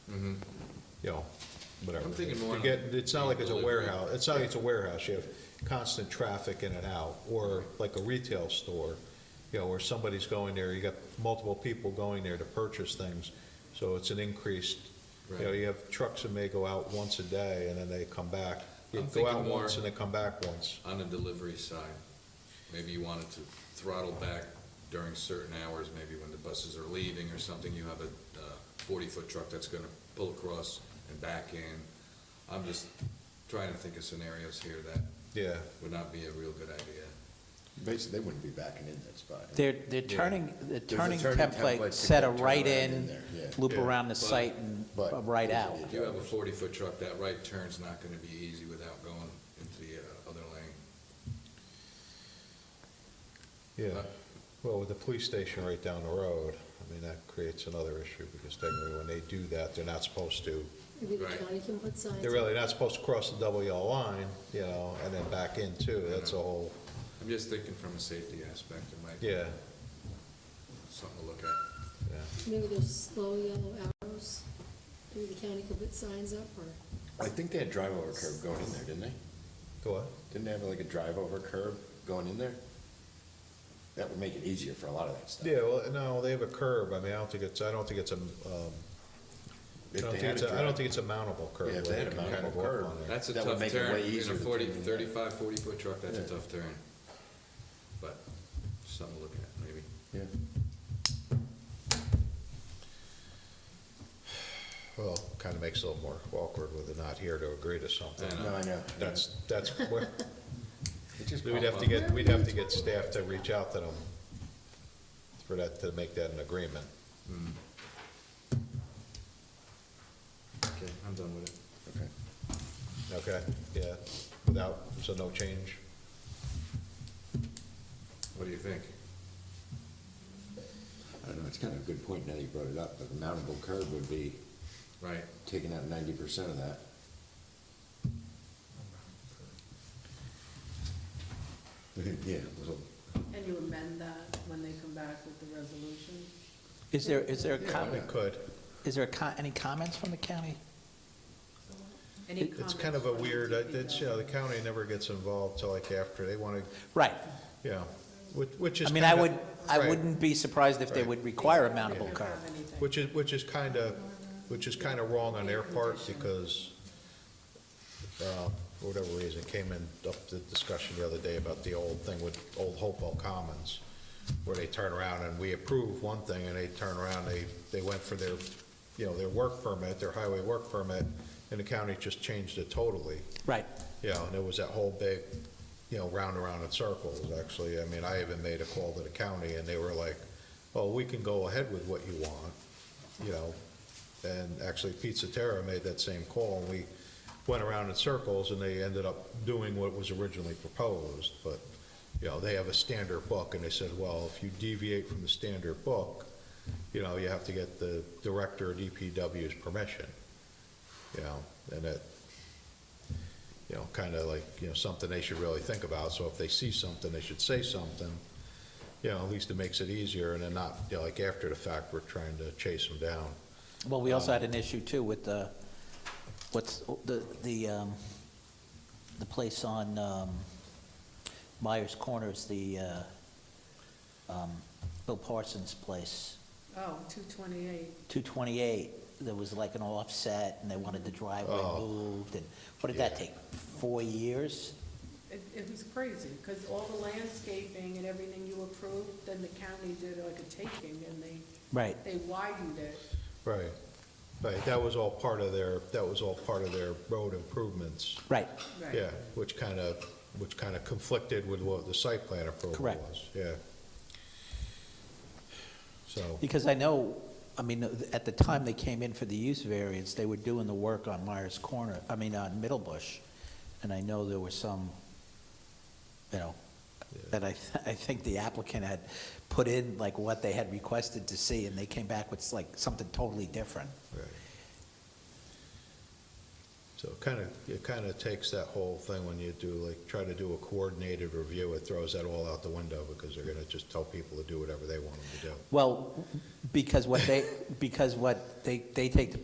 you know, whatever. I'm thinking To one of- get- It's not like it's a Delivery. warehouse, it's not like it's a warehouse, you have constant traffic in and out, or like a retail store, you know, where somebody's going there, you got multiple people going there to purchase things, so it's an increased, you know, Right. you have trucks that may go out once a day, and then they come back. You I'm go out thinking more- once and they come back once. On the delivery side, maybe you wanted to throttle back during certain hours, maybe when the buses are leaving or something, you have a uh, forty-foot truck that's gonna pull across and back in. I'm just trying to think of scenarios here that Yeah, would not be a real good idea. Basically, they wouldn't be backing in that spot. They're, they're turning, the turning template, template to set a turn right around in in, there, yeah. loop Yeah. around the But- site and but- a right out. If you have a forty-foot truck, that right turn's not gonna be easy without going into the uh, other lane. Uh. yeah. Well, with the police station right down the road, I mean, that creates another issue, because technically, when they do that, they're not supposed to Maybe the Right. county can put signs. They're really not supposed to cross the double yellow line, you know, and then back in too, that's a whole, I'm just thinking from a safety aspect, it might be yeah, something to look at. yeah. Maybe those slow yellow arrows, maybe the county could put signs up or, I think they had drive-over curb going in there, didn't they? Go on. Didn't they have like a drive-over curb going in there? That would make it easier for a lot of that stuff. Yeah, well, no, they have a curb, I mean, I don't think it's, I don't think it's a, um, I If don't they think it's, had a a- I don't think it's a mountable curb. Yeah, if they where had a can kind of mountable walk curb, on there. That's a That would tough make it turn, way in easier a to forty, turn in. thirty-five, forty-foot truck, that's a Yeah. tough turn. But, something to look at, maybe. drive- yeah. Well, kind of makes it a little more awkward with the not here to agree to something. I No, I know. That's, that's where, It just we'd have to get, we'd have to get staff to reach out to them for that, to make that an agreement. Okay, I'm done with it. Okay. Okay, yeah, without, so no change? What do you think? I don't know, it's kind of a good point now that you brought it up, but the mountable curb would be Right, taking out ninety percent of that. Yeah, well, And you amend that when they come back with the resolution? Is there, is there a Yeah, com, We why could. is there a co- any comments from the county? Any It's kind of a comments from weird, uh, DPW? it's, you know, the county never gets involved till like after, they want to, Right. you know, which, which is I kind mean, of. I would, I right, wouldn't be surprised if they Right. would require a They don't mountable curb. have anything. Which is, which is kind of, which is kind of wrong on their part because, uh, for whatever reason, it came in up the discussion the other day about the old thing with Old Hopewell Commons, where they turn around and we approve one thing and they turn around, they, they went for their, you know, their work permit, their highway work permit, and the county just changed it totally. Right. Yeah, and it was that whole big, you know, round and round in circles, actually. I mean, I even made a call to the county, and they were like, well, we can go ahead with what you want, you know? And actually, Pizza Terra made that same call, and we went around in circles, and they ended up doing what was originally proposed. But, you know, they have a standard book, and they said, well, if you deviate from the standard book, you know, you have to get the director of DPW's permission, you know? And that, you know, kind of like, you know, something they should really think about. So if they see something, they should say something. You know, at least it makes it easier and then not, you know, like after the fact, we're trying to chase them down. Well, we also had an issue too with the, what's, the, the, um, the place on, um, Myers Corners, the, uh, um, Bill Parsons' place. Oh, 228. 228, there was like an offset, and they wanted the driveway Oh. moved, and what did that Yeah. take, four years? It, it was crazy, because all the landscaping and everything you approved, then the county did like a taking, and they, Right. they widened it. Right. Right, that was all part of their, that was all part of their road improvements. Right, Right. Yeah, which kind of, which kind of conflicted with what the site plan approval Correct. was. Yeah. So, because I know, I mean, at the time they came in for the use variance, they were doing the work on Myers Corner, I mean, on Middle Bush, and I know there were some, you know, that I, th- I think the applicant had put in like what they had requested to see, and they came back with like something totally different. right. So it kind of, it kind of takes that whole thing when you do, like, try to do a coordinated review, it throws that all out the window because they're gonna just tell people to do whatever they want them to do. Well, because what they, because what, they, they take the